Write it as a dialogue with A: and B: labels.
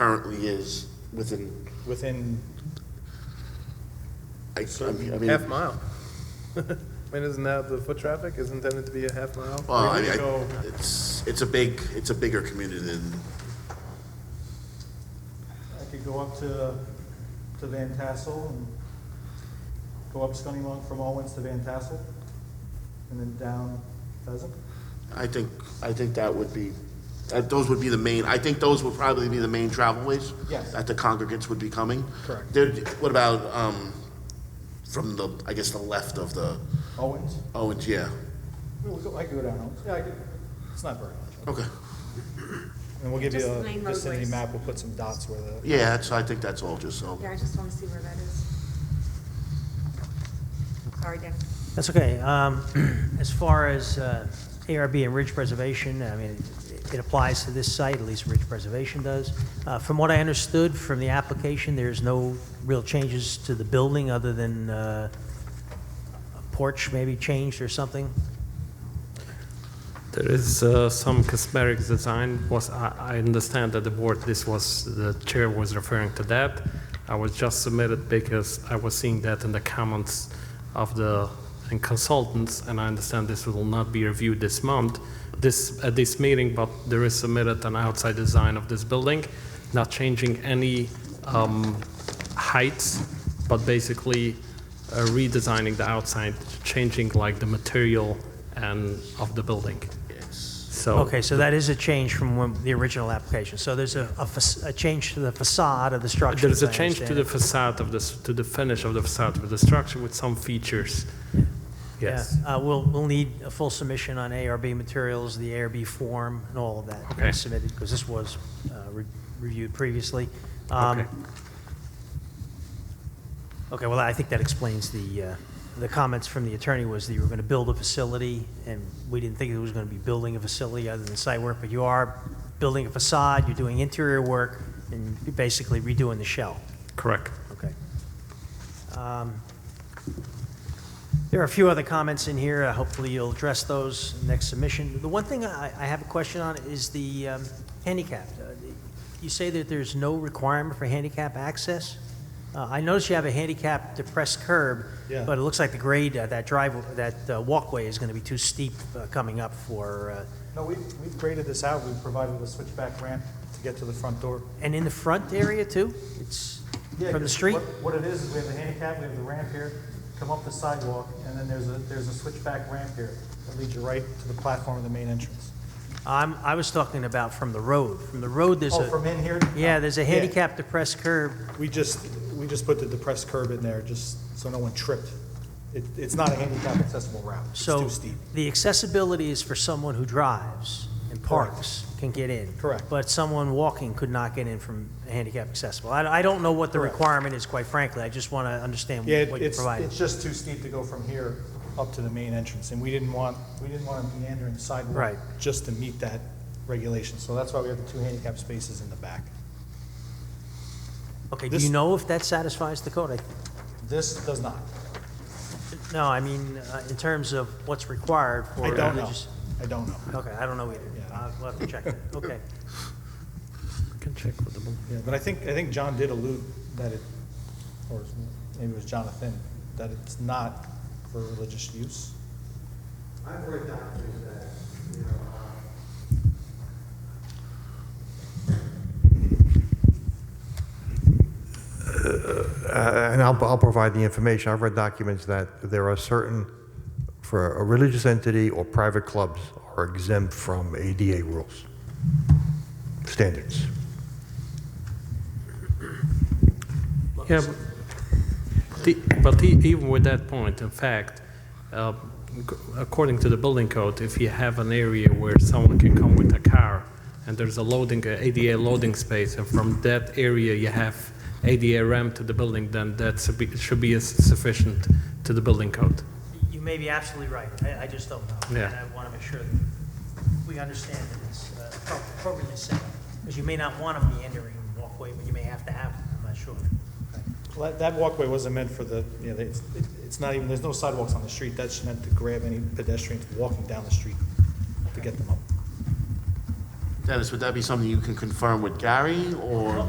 A: currently is within,
B: within
A: I, I mean, I mean.
C: Half mile. I mean, isn't that the foot traffic is intended to be a half mile?
A: Well, I,
B: Where do you
A: I, it's, it's a big, it's a bigger community than,
B: I could go up to, to Van Tassel and go up Scunny from Owens to Van Tassel and then down Pheasant.
A: I think, I think that would be, that, those would be the main, I think those would probably be the main travel ways.
B: Yes.
A: That the congregants would be coming.
B: Correct.
A: There, what about, um, from the, I guess, the left of the
B: Owens.
A: Owens, yeah,
B: We'll go- I could go down Owens. Yeah, I could. It's not very much.
A: okay.
B: And we'll give you
D: Just
B: a
D: main
B: vicinity
D: roadways.
B: map. We'll put some dots where the,
A: Yeah, that's, I think that's all, just so.
D: Yeah, I just want to see where that is. Sorry, Dan.
E: That's okay. Um, As far as uh, ARB and ridge preservation, I mean, it- it applies to this site, at least ridge preservation does. Uh, From what I understood from the application, there's no real changes to the building other than uh, a porch maybe changed or something?
F: There is uh, some cosmetic design. Was I, I understand that the board, this was the chair was referring to that. I was just submitted because I was seeing that in the comments of the and consultants, and I understand this will not be reviewed this month, this at this meeting. But there is submitted an outside design of this building, not changing any um, heights, but basically uh, redesigning the outside, changing like the material and of the building. So
E: Okay, so that is a change from when- the original application. So there's a- a fac- a change to the facade of the structure?
F: There is
E: as
F: a
E: I
F: change to
E: understand
F: the
E: it.
F: facade of this, to the finish of the facade with the structure with some features. Yes.
E: Yeah, uh, we'll, we'll need a full submission on ARB materials, the ARB form, and all of that to be
F: Okay.
E: submitted, because this was uh, re- reviewed previously. Um,
F: Okay.
E: Okay, well, I think that explains the, uh, the comments from the attorney was that you were going to build a facility, and we didn't think it was going to be building a facility other than site work, but you are building a facade, you're doing interior work, and you're basically redoing the shell.
F: Correct.
E: Okay. Um, There are a few other comments in here. Uh, Hopefully, you'll address those next submission. The one thing I I have a question on is the um, handicap. Uh, You say that there's no requirement for handicap access? Uh, I notice you have a handicap depressed curb,
B: Yeah.
E: but it looks like the grade, uh, that drive, that uh, walkway is going to be too steep uh, coming up for, uh,
B: no, we, we've graded this out. We've provided a switchback ramp to get to the front door.
E: and in the front area, too? It's
B: Yeah,
E: from
B: 'cause
E: the street?
B: what- What it is, is we have the handicap, we have the ramp here, come up the sidewalk, and then there's a, there's a switchback ramp here that leads you right to the platform of the main entrance.
E: I'm, I was talking about from the road. From the road, there's a...
B: Oh, from in here?
E: Yeah, there's a handicap depressed curb.
B: We just, we just put the depressed curb in there, just so no one tripped. It, it's not a handicap accessible route. It's
E: So
B: too steep.
E: the accessibility is for someone who drives and
B: Correct.
E: parks can get in.
B: Correct.
E: But someone walking could not get in from handicap accessible. I, I don't know what the
B: Correct.
E: requirement is, quite frankly. I just want to understand
B: Yeah, it-
E: what you
B: it's,
E: provided.
B: it's just too steep to go from here up to the main entrance, and we didn't want, we didn't want to meander in the sidewalk.
E: Right.
B: Just to meet that regulation, so that's why we have the two handicap spaces in the back.
E: Okay, do
B: this-
E: you know if that satisfies the code?
B: This does not.
E: I- No, I mean, uh, in terms of what's required for
B: I don't know.
E: religious...
B: I don't know.
E: Okay, I don't know either.
B: Yeah.
E: Uh, We'll have to check that. Okay.
F: Can check with the board.
B: Yeah, but I think, I think John did allude that it, or maybe it was Jonathan, that it's not for religious use.
G: I've read documents that, you know, uh, uh, and I'll, I'll provide the information. I've read documents that there are certain, for a religious entity or private clubs are exempt from ADA rules, standards.
F: Yeah, but the- but e- even with that point, in fact, uh, ac- according to the building code, if you have an area where someone can come with a car, and there's a loading, uh, a ADA loading space, and from that area you have ADA ramp to the building, then that should be- should be sufficient to the building code.
E: You may be absolutely right. I, I just don't know.
F: Yeah.
E: And I want to make sure that we understand that it's uh, appro- appropriately set. Because you may not want a meandering walkway, but you may have to have it. I'm not sure.
B: Well, That that walkway wasn't meant for the, you know, it's, it's not even, there's no sidewalks on the street. That's meant to grab any pedestrians walking down the street to get them up.
A: Dennis, would that be something you can confirm with Gary, or?